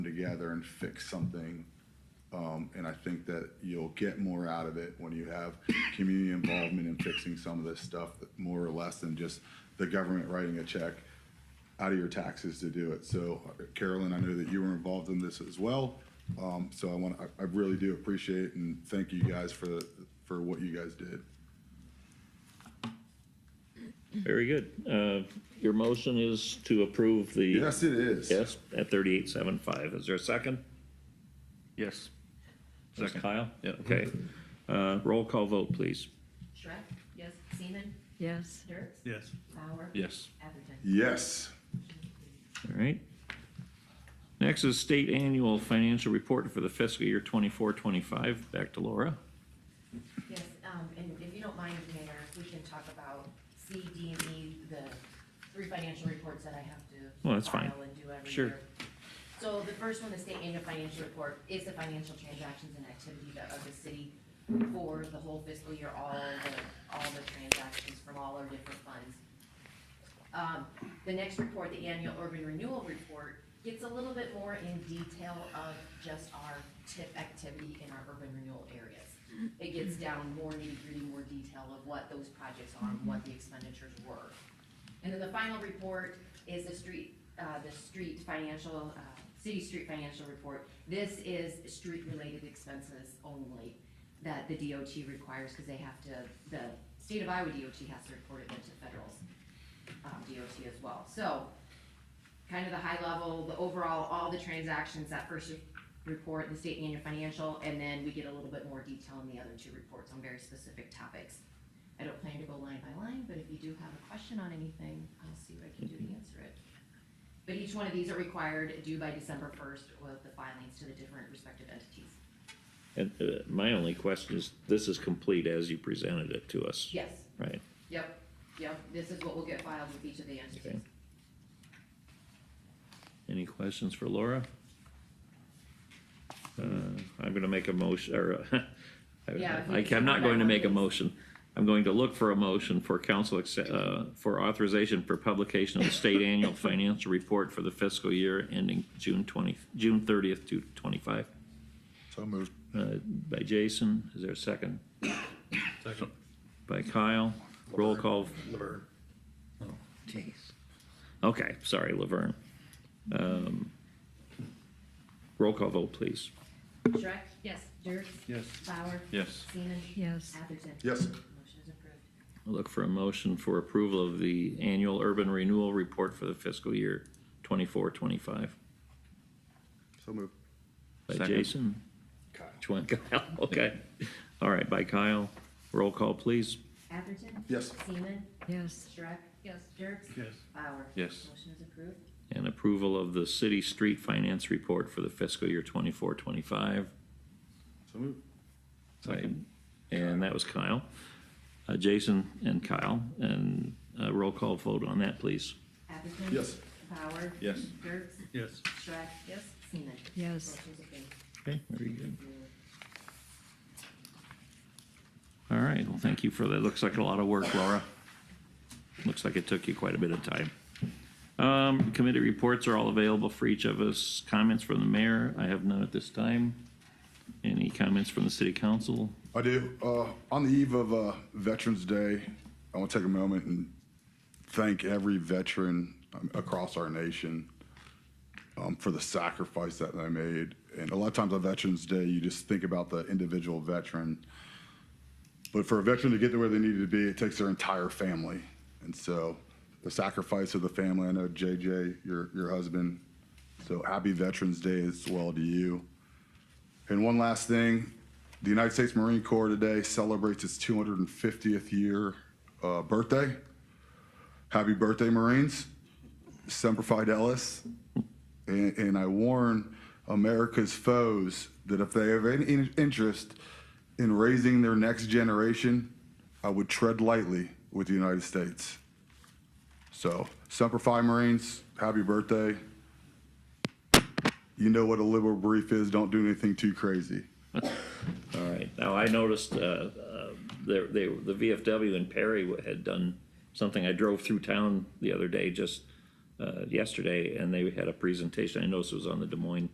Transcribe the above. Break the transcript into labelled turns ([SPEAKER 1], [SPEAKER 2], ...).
[SPEAKER 1] together and fix something. Um, and I think that you'll get more out of it when you have community involvement in fixing some of this stuff, more or less than just the government writing a check out of your taxes to do it. So Carolyn, I know that you were involved in this as well. Um, so I want, I, I really do appreciate and thank you guys for, for what you guys did.
[SPEAKER 2] Very good. Uh, Your motion is to approve the.
[SPEAKER 1] Yes, it is.
[SPEAKER 2] Yes, at thirty-eight seven five. Is there a second?
[SPEAKER 3] Yes.
[SPEAKER 2] Ms.
[SPEAKER 3] Second.
[SPEAKER 2] Kyle?
[SPEAKER 3] Yeah.
[SPEAKER 2] Okay. Uh, Roll call vote, please.
[SPEAKER 4] Shrek? Yes. Seaman?
[SPEAKER 5] Yes.
[SPEAKER 4] Dirk?
[SPEAKER 6] Yes.
[SPEAKER 4] Bauer?
[SPEAKER 3] Yes.
[SPEAKER 4] Atherton?
[SPEAKER 1] Yes.
[SPEAKER 2] All right. Next is state annual financial report for the fiscal year twenty-four, twenty-five. Back to Laura.
[SPEAKER 4] Yes, um, and if you don't mind, Mayor, if we can talk about C, D, and E, the three financial reports that I have to.
[SPEAKER 2] Well, that's fine.
[SPEAKER 4] file and do every
[SPEAKER 2] Sure.
[SPEAKER 4] year. So the first one, the state annual financial report, is the financial transactions and activity that- of the city for the whole fiscal year, all the, all the transactions from all our different funds. Um, the next report, the annual urban renewal report, gets a little bit more in detail of just our tip activity in our urban renewal areas. It gets down more nitty-gritty, more detail of what those projects are and what the expenditures were. And then the final report is the street, uh, the street financial, uh, city street financial report. This is street-related expenses only that the DOT requires, because they have to, the state of Iowa DOT has to report it then to federals um, DOT as well. So, kind of the high level, the overall, all the transactions, that first report, the state annual financial, and then we get a little bit more detail in the other two reports on very specific topics. I don't plan to go line by line, but if you do have a question on anything, I'll see what I can do to answer it. But each one of these are required due by December first with the filings to the different respective entities.
[SPEAKER 2] And uh, my only question is, this is complete as you presented it to us,
[SPEAKER 4] Yes,
[SPEAKER 2] right?
[SPEAKER 4] yep, yep, this is what will get filed with each of the
[SPEAKER 2] Okay.
[SPEAKER 4] entities.
[SPEAKER 2] Any questions for Laura? Uh, I'm gonna make a motion, or, uh,
[SPEAKER 4] Yeah, if
[SPEAKER 2] I-
[SPEAKER 4] you
[SPEAKER 2] I- I'm not
[SPEAKER 4] could-
[SPEAKER 2] going to make a motion. I'm going to look for a motion for council, acce- uh, for authorization for publication of the state annual financial report for the fiscal year ending June twenty, June thirtieth to twenty-five.
[SPEAKER 1] So moved.
[SPEAKER 2] Uh, By Jason, is there a second?
[SPEAKER 6] Second.
[SPEAKER 2] By Kyle, roll call. Oh,
[SPEAKER 6] Laverne.
[SPEAKER 2] Okay, sorry, Laverne. Um, Roll call vote, please.
[SPEAKER 4] Shrek?
[SPEAKER 5] Yes.
[SPEAKER 4] Dirk?
[SPEAKER 6] Yes.
[SPEAKER 4] Bauer?
[SPEAKER 3] Yes.
[SPEAKER 4] Seaman?
[SPEAKER 5] Yes.
[SPEAKER 4] Atherton?
[SPEAKER 1] Yes.
[SPEAKER 4] Motion is approved.
[SPEAKER 2] I'll look for a motion for approval of the annual urban renewal report for the fiscal year twenty-four, twenty-five.
[SPEAKER 1] So moved.
[SPEAKER 2] By
[SPEAKER 3] Second.
[SPEAKER 2] Jason?
[SPEAKER 1] Kyle.
[SPEAKER 2] Which one? Kyle, okay. All right, by Kyle. Roll call, please.
[SPEAKER 4] Atherton?
[SPEAKER 1] Yes.
[SPEAKER 4] Seaman?
[SPEAKER 5] Yes.
[SPEAKER 4] Shrek? Yes. Dirk?
[SPEAKER 6] Yes.
[SPEAKER 4] Bauer?
[SPEAKER 3] Yes.
[SPEAKER 4] Motion is approved.
[SPEAKER 2] And approval of the city street finance report for the fiscal year twenty-four, twenty-five.
[SPEAKER 1] So moved.
[SPEAKER 3] Second.
[SPEAKER 2] And that was Kyle. Uh, Jason and Kyle, and, uh, roll call vote on that, please.
[SPEAKER 4] Atherton?
[SPEAKER 1] Yes.
[SPEAKER 4] Bauer?
[SPEAKER 3] Yes.
[SPEAKER 4] Dirk?
[SPEAKER 6] Yes.
[SPEAKER 4] Shrek? Yes. Seaman?
[SPEAKER 5] Yes.
[SPEAKER 4] Motion is approved.
[SPEAKER 2] Okay, very good. All right, well, thank you for that. Looks like a lot of work, Laura. Looks like it took you quite a bit of time. Um, committee reports are all available for each of us. Comments from the mayor, I have none at this time. Any comments from the city council?
[SPEAKER 1] I do. Uh, on the eve of uh, Veterans Day, I want to take a moment and thank every veteran um, across our nation um, for the sacrifice that they made. And a lot of times on Veterans Day, you just think about the individual veteran. But for a veteran to get to where they needed to be, it takes their entire family. And so the sacrifice of the family, I know JJ, your, your husband, so happy Veterans Day as well to you. And one last thing, the United States Marine Corps today celebrates its 250th year uh, birthday. Happy birthday, Marines. Semper Fidelis. And, and I warn America's foes that if they have any in- interest in raising their next generation, I would tread lightly with the United States. So, Semper Fi Marines, happy birthday. You know what a liberal brief is. Don't do anything too crazy.
[SPEAKER 2] All right, now I noticed, uh, uh, there, they, the VFW in Perry had done something. I drove through town the other day, just, uh, yesterday, and they had a presentation. I noticed it was on the Des Moines